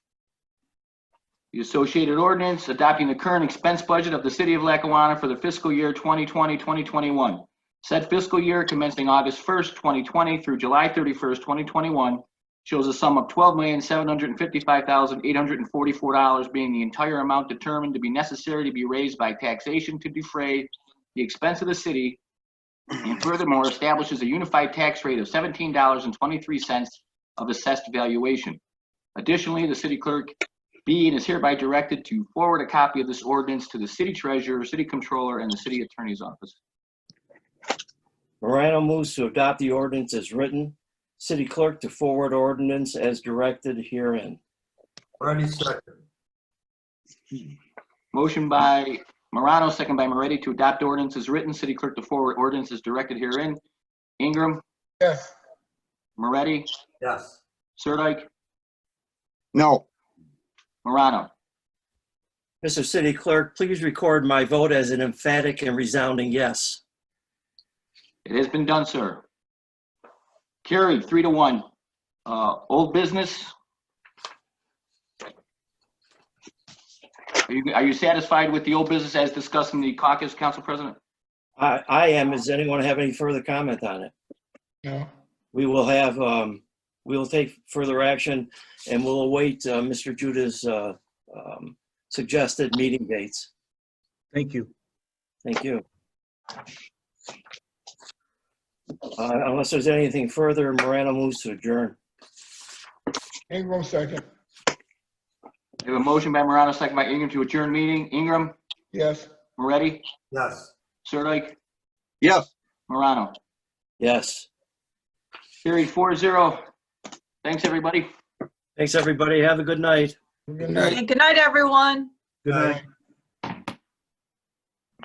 The associated ordinance adopting the current expense budget of the city of Lackawanna for the fiscal year 2020, 2021. Said fiscal year commencing August 1st, 2020 through July 31st, 2021 shows a sum of $12,755,844 being the entire amount determined to be necessary to be raised by taxation to defray the expense of the city and furthermore establishes a unified tax rate of $17.23 of assessed valuation. Additionally, the city clerk be and is hereby directed to forward a copy of this ordinance to the city treasurer, city controller, and the city attorney's office. Morano moves to adopt the ordinance as written. City clerk to forward ordinance as directed herein. Moretti second. Motion by Morano, second by Moretti to adopt ordinance as written. City clerk to forward ordinance is directed herein. Ingram. Yes. Moretti, Yes. Sirdike, No. Morano. Mr. City Clerk, please record my vote as an emphatic and resounding yes. It has been done, sir. Carried, three to one. Uh, old business. Are you, are you satisfied with the old business as discussed in the caucus, Council President? I, I am. Does anyone have any further comment on it? No. We will have, um, we will take further action and we'll await, uh, Mr. Judah's, uh, um, suggested meeting dates. Thank you. Thank you. Uh, unless there's anything further, Morano moves to adjourn. Ingram second. We have a motion by Morano, second by Ingram to adjourn meeting. Ingram, Yes. Moretti, Yes. Sirdike, Yes. Morano. Yes. Carried, four zero. Thanks, everybody. Thanks, everybody. Have a good night. Good night. Good night, everyone. Good night. Aye.